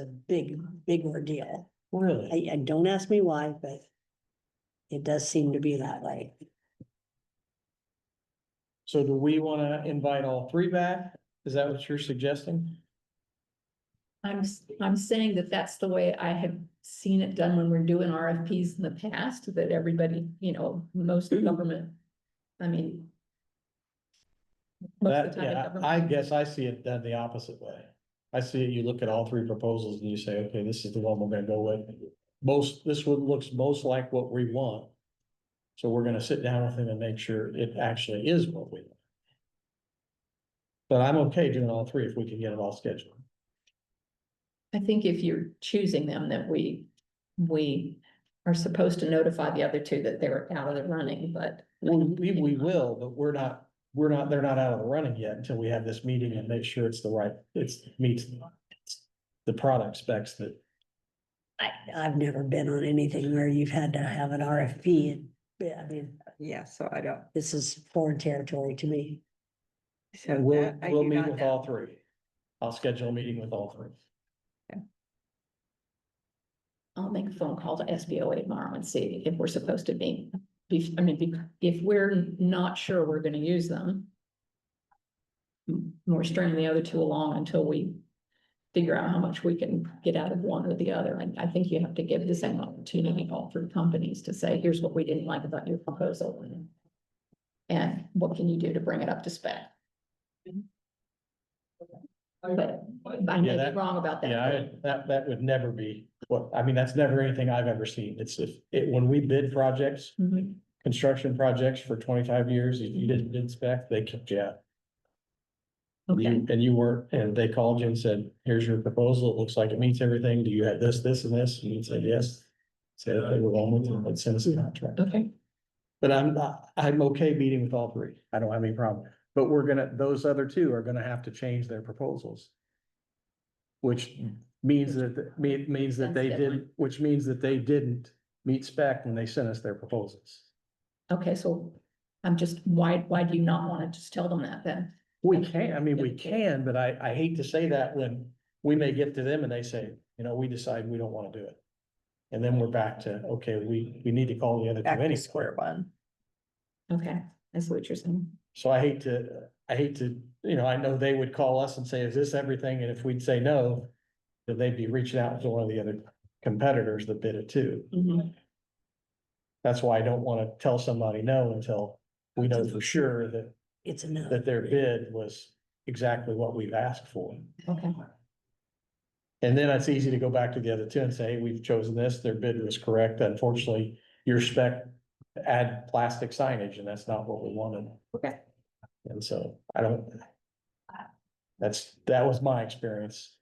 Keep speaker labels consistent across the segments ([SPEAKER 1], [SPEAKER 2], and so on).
[SPEAKER 1] a big, big ordeal.
[SPEAKER 2] Really?
[SPEAKER 1] I, I, don't ask me why, but it does seem to be that way.
[SPEAKER 2] So do we wanna invite all three back? Is that what you're suggesting?
[SPEAKER 3] I'm, s- I'm saying that that's the way I have seen it done when we're doing RFPs in the past, that everybody, you know, most
[SPEAKER 2] Mm-hmm.
[SPEAKER 3] government, I mean. most
[SPEAKER 2] That,
[SPEAKER 3] of the time,
[SPEAKER 2] yeah,
[SPEAKER 3] government-
[SPEAKER 2] I guess I see it done the opposite way. I see it, you look at all three proposals and you say, okay, this is the one we're gonna go with. Most, this one looks most like what we want. So we're gonna sit down with them and make sure it actually is what we want. But I'm okay doing all three if we can get it all scheduled.
[SPEAKER 3] I think if you're choosing them, that we, we are supposed to notify the other two that they're out of the running, but.
[SPEAKER 2] Well, we, we will, but we're not, we're not, they're not out of the running yet until we have this meeting and make sure it's the right, it's meets. The product specs that,
[SPEAKER 1] I, I've never been on anything where you've had to have an RFP and, yeah, I mean,
[SPEAKER 4] Yeah, so I don't,
[SPEAKER 1] this is foreign territory to me.
[SPEAKER 4] so
[SPEAKER 2] we'll,
[SPEAKER 4] that I
[SPEAKER 2] we'll
[SPEAKER 4] do
[SPEAKER 2] meet
[SPEAKER 4] not
[SPEAKER 2] with
[SPEAKER 4] know.
[SPEAKER 2] all three. I'll schedule a meeting with all three.
[SPEAKER 3] I'll make a phone call to SBOA tomorrow and see if we're supposed to be, be- I mean, be- if we're not sure we're gonna use them. m- We're stringing the other two along until we figure out how much we can get out of one or the other. And I think you have to give the same opportunity to all three companies to say, here's what we didn't like about your proposal. and- And what can you do to bring it up to spec? But I
[SPEAKER 2] Yeah,
[SPEAKER 3] may
[SPEAKER 2] that-
[SPEAKER 3] be wrong about that.
[SPEAKER 2] Yeah, I, that, that would never be, what, I mean, that's never anything I've ever seen. It's if, it, when we bid projects,
[SPEAKER 3] Mhm.
[SPEAKER 2] construction projects for twenty-five years, if you didn't bid spec, they kicked you out.
[SPEAKER 3] Okay,
[SPEAKER 2] You, and you weren't, and they called you and said, here's your proposal, it looks like it meets everything, do you have this, this and this, and you said yes. Say that they were wrong with it, let's send us a contract,
[SPEAKER 3] okay.
[SPEAKER 2] but I'm, not- I'm okay meeting with all three, I don't have any problem, but we're gonna, those other two are gonna have to change their proposals. Which means that, me- means that they
[SPEAKER 3] That's deadline.
[SPEAKER 2] didn't, which means that they didn't meet spec when they sent us their proposals.
[SPEAKER 3] Okay, so I'm just, why, why do you not want to just tell them that then?
[SPEAKER 2] We can, I mean, we can, but I, I hate to say that when we may get to them and they say, you know, we decide we don't wanna do it. And then we're back to, okay, we, we need to call the other
[SPEAKER 4] Back
[SPEAKER 2] two
[SPEAKER 4] to
[SPEAKER 2] anyway.
[SPEAKER 4] square one.
[SPEAKER 3] Okay, that's what you're saying.
[SPEAKER 2] So I hate to, I hate to, you know, I know they would call us and say, is this everything? And if we'd say no, then they'd be reaching out to one of the other competitors that bid it too. That's why I don't wanna tell somebody no until we know for sure that,
[SPEAKER 1] It's enough.
[SPEAKER 2] that their bid was exactly what we've asked for.
[SPEAKER 3] Okay,
[SPEAKER 2] And then it's easy to go back to the other two and say, hey, we've chosen this, their bid was correct, unfortunately, your spec add plastic signage, and that's not what we wanted.
[SPEAKER 3] Okay.
[SPEAKER 2] And so I don't. That's, that was my experience.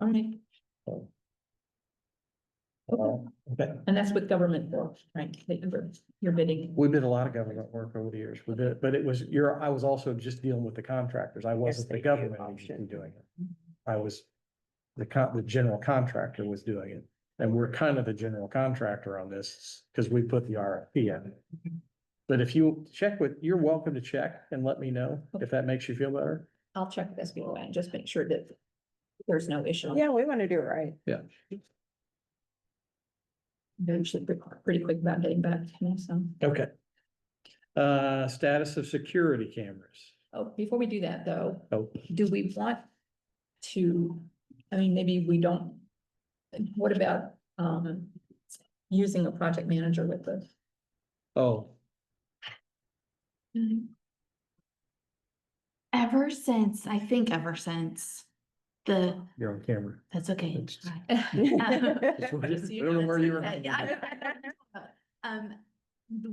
[SPEAKER 3] all right.
[SPEAKER 2] so.
[SPEAKER 3] Okay.
[SPEAKER 2] Okay.
[SPEAKER 3] And that's with government work, right? that you're- You're bidding.
[SPEAKER 2] We did a lot of government work over the years, we did, but it was, you're, I was also just dealing with the contractors, I wasn't the
[SPEAKER 4] Yes, they do
[SPEAKER 2] government
[SPEAKER 4] option.
[SPEAKER 2] agency doing it. I was. The con, the general contractor was doing it, and we're kind of the general contractor on this, because we put the RFP in. But if you check with, you're welcome to check and let me know if that makes you feel better.
[SPEAKER 3] I'll check this before and just make sure that there's no issue.
[SPEAKER 4] Yeah, we want to do it right.
[SPEAKER 3] They're usually pretty- pretty quick about getting back to me, so.
[SPEAKER 2] Okay. Uh, status of security cameras.
[SPEAKER 3] Oh, before we do that though,
[SPEAKER 2] Oh,
[SPEAKER 3] do we want to, I mean, maybe we don't. What about, um, using a project manager with the
[SPEAKER 2] oh,
[SPEAKER 5] Mm-hmm. Ever since, I think ever since the,
[SPEAKER 2] you're on camera.
[SPEAKER 5] that's okay.
[SPEAKER 2] It's-
[SPEAKER 5] hi.
[SPEAKER 2] Just wanted-
[SPEAKER 5] So
[SPEAKER 2] I don't know where you were
[SPEAKER 5] that's-
[SPEAKER 2] going
[SPEAKER 5] yeah, I- I- Um,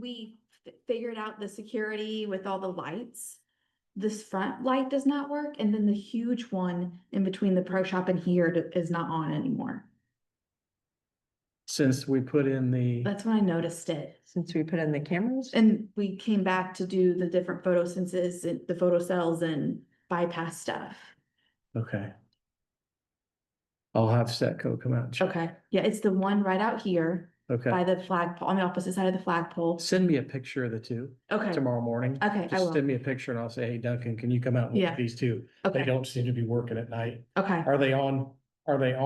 [SPEAKER 5] we fi- figured out the security with all the lights. This front light does not work and then the huge one in between the pro shop and here d- is not on anymore.
[SPEAKER 2] Since we put in the.
[SPEAKER 5] That's when I noticed it.
[SPEAKER 4] Since we put in the cameras.
[SPEAKER 5] And we came back to do the different photosenses and the photo cells and bypass stuff.
[SPEAKER 2] Okay. I'll have Setco come out. and check.
[SPEAKER 5] Okay, yeah, it's the one right out here.
[SPEAKER 2] Okay.
[SPEAKER 5] by the flagpole, on the opposite side of the flagpole.
[SPEAKER 2] Send me a picture of the two
[SPEAKER 5] Okay,
[SPEAKER 2] tomorrow morning.
[SPEAKER 5] okay, I
[SPEAKER 2] Just
[SPEAKER 5] will.
[SPEAKER 2] send me a picture and I'll say, hey Duncan, can you come out and look
[SPEAKER 5] Yeah.
[SPEAKER 2] at these two? They
[SPEAKER 5] Okay,
[SPEAKER 2] don't seem to be working at night.
[SPEAKER 5] okay.
[SPEAKER 2] Are they on Are they